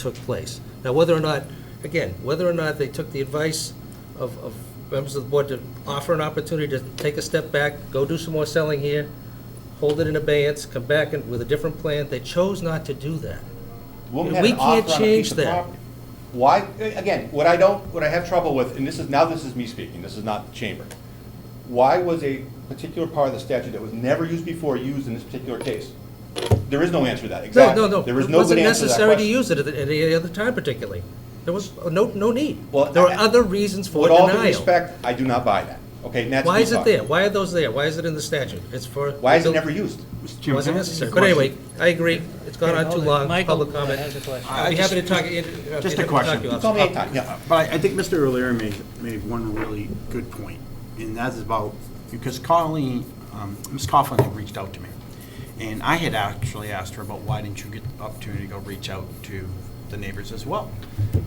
took place. Now, whether or not, again, whether or not they took the advice of, of members of the board to offer an opportunity to take a step back, go do some more selling here, hold it in abeyance, come back and, with a different plan, they chose not to do that. The woman And had we an can't offer on a change piece of that. property. Why, again, what I don't, what I have trouble with, and this is, now this is me speaking, this is not the chamber. Why was a particular part of the statute that was never used before used in this particular case? There is no answer to that, No, exactly. no, no. There is no good answer to that It wasn't necessary to question. use it at at any other time particularly. There was no, no need. Well, There were I- other reasons for With all due denial. respect, I do not buy that, okay, and that's Why me is it talking. there? Why are those there? Why is it in the statute? It's for. Why is it never used? Mr. Wasn't Chairman, can I ask you a necessary. But anyway, question? I agree. It's gone on too long, public comment. I I'd be just- happy to talk. uh, uh, Just a talk to question. you It's It's after. only eight times, yeah. But I- I think Mr. O'Leary made, made one really good point, and that is about, because Colleen, um, Ms. Coughlin had reached out to me, and I had actually asked her about why didn't you get the opportunity to go reach out to the neighbors as well?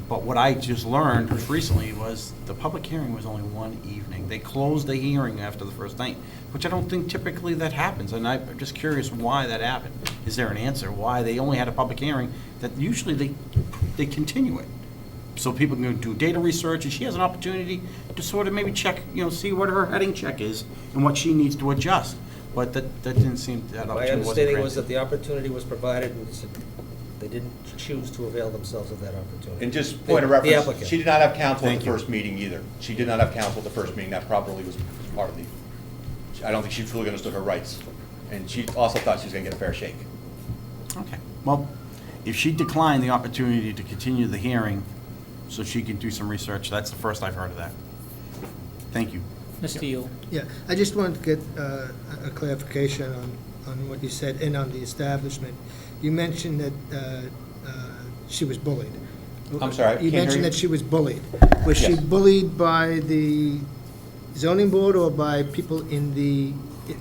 But what I just learned just recently was the public hearing was only one evening. They closed the hearing after the first night, which I don't think typically that happens, and I'm just curious why that happened. Is there an answer why they only had a public hearing, that usually they, they continue it? so people can do data research, and she has an opportunity to sort of maybe check, you know, see what her heading check is and what she needs to adjust. But that, that didn't seem, that My opportunity wasn't understanding was that granted. the opportunity was provided, and it's- they didn't choose to avail themselves of that opportunity. And just The- point of the reference, applicant. she did not have counsel at Thank the you. first meeting either. She did not have counsel at the first meeting, that probably was part of the, I don't think she fully understood her rights. And she also thought she was gonna get a fair shake. Okay, well, if she declined the opportunity to continue the hearing so she could do some research, that's the first I've heard of that. Thank you. Mr. Yule. Yeah, I just wanted to get uh, a a clarification on, on what you said and on the establishment. You mentioned that uh, uh, she was bullied. I'm sorry, I can't You hear you. mentioned that she was bullied. Was she Yes. bullied by the zoning board or by people in the,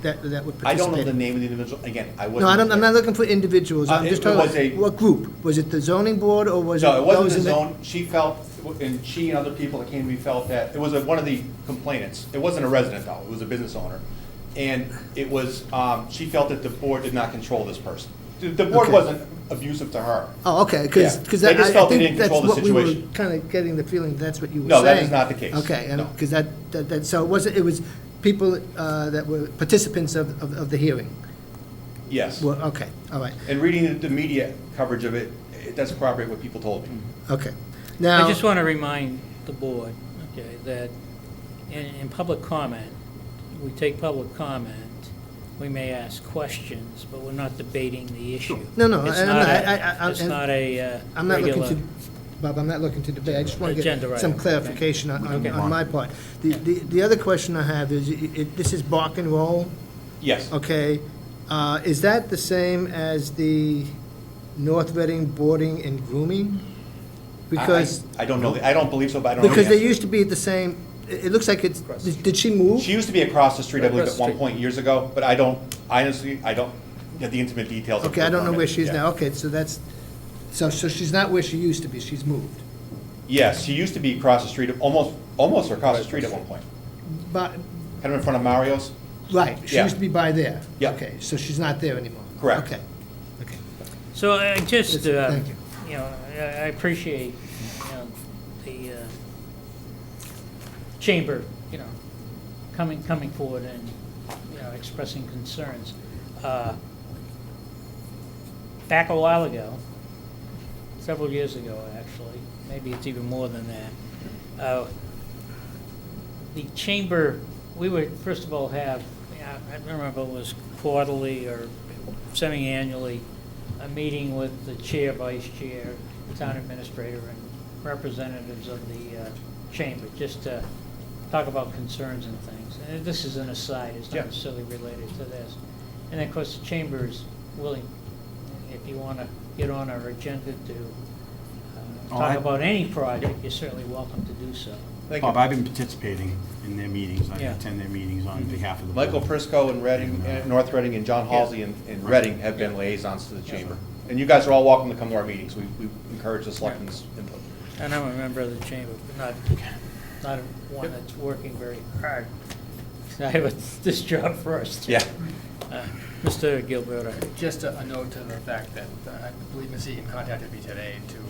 that, that would I don't participate? know the name of the individual, again, I wasn't. No, I don't, I'm not there. looking for individuals, Uh, I'm just it talking, was a- about what group? Was it the zoning board or was it? No, it wasn't those the in zone, she felt, and she and other people that came to me felt that, it was a- one of the complainants. It wasn't a resident though, it was a business owner. And it was, um, she felt that the board did not control this person. The- The board Okay. wasn't abusive to her. Oh, okay, because, Yeah. because They I just felt I they didn't think that's control the what we were situation. kind of getting the feeling, that's what you were No, saying. that is not the case. Okay, No. and, because that, that, that- so it wasn't, it was people uh, that were participants of, of of the hearing? Yes. Well, okay, all right, And reading the- the media coverage of it, it doesn't corroborate what people told me. okay. I Now, just want to remind the board, okay, that in, in public comment, we take public comment, we may ask questions, but we're not debating the issue. No, no, It's I- I'm not not- a- I- I- I'm- It's not a uh, I'm not looking regular, to, Bob, I'm not looking to debate, I just want to Agenda get item, some okay. clarification on, on Okay. on my part. The, the, the other question I have is, it- it, this is bark and roll? Yes. Okay, uh, is that the same as the North Reading boarding and grooming? I- I- Because, I don't know, the- I don't believe so, but I don't know. the because they answer. used to be the same, it, it looks like it's, did she move? She used to be across the street, I believe, Across at the one street. point years ago, but I don't, I honestly, I don't get the intimate details of Okay, her I don't know permit. where she is Yeah. now, okay, so that's, so, so she's not where she used to be, she's moved. Yes, she used to be across the street, almost, almost across the street at one point, But, kind of in front of Mario's. right, she Yeah. used to be by there. Yeah. Okay, so she's not there anymore. Correct. Okay, okay. so I just, Yes, uh, thank you. you know, I I appreciate, you know, the uh, chamber, you know, coming, coming forward and, you know, expressing concerns. Uh, Back a while ago, several years ago, actually, maybe it's even more than that, uh, the chamber, we would, first of all, have, I I don't remember if it was quarterly or semi-annually, a meeting with the chair, vice chair, town administrator, and representatives of the uh, chamber, just to talk about concerns and things. And this is an aside, it's Yeah. not necessarily related to this. And of course, the chamber is willing, if you want to get on our agenda to uh, Oh, I- talk about any project, you're certainly welcome to do so. Thank Bob, you. I've been participating in their meetings, I Yeah. attend their meetings on Mm-hmm. behalf of the board. Michael Prisco and Reading, and North Reading and John Halsey and, and Reading have been liaisons to the chamber. And you guys are all welcome to come to our meetings, we, we encourage the selectmen's input. And I'm a member of the chamber, but not, not one that's working very hard. I have a- this job first. Yeah, Uh, Mr. Gilberto. Just a a note to the fact that uh, I believe Ms. Eaton contacted me today to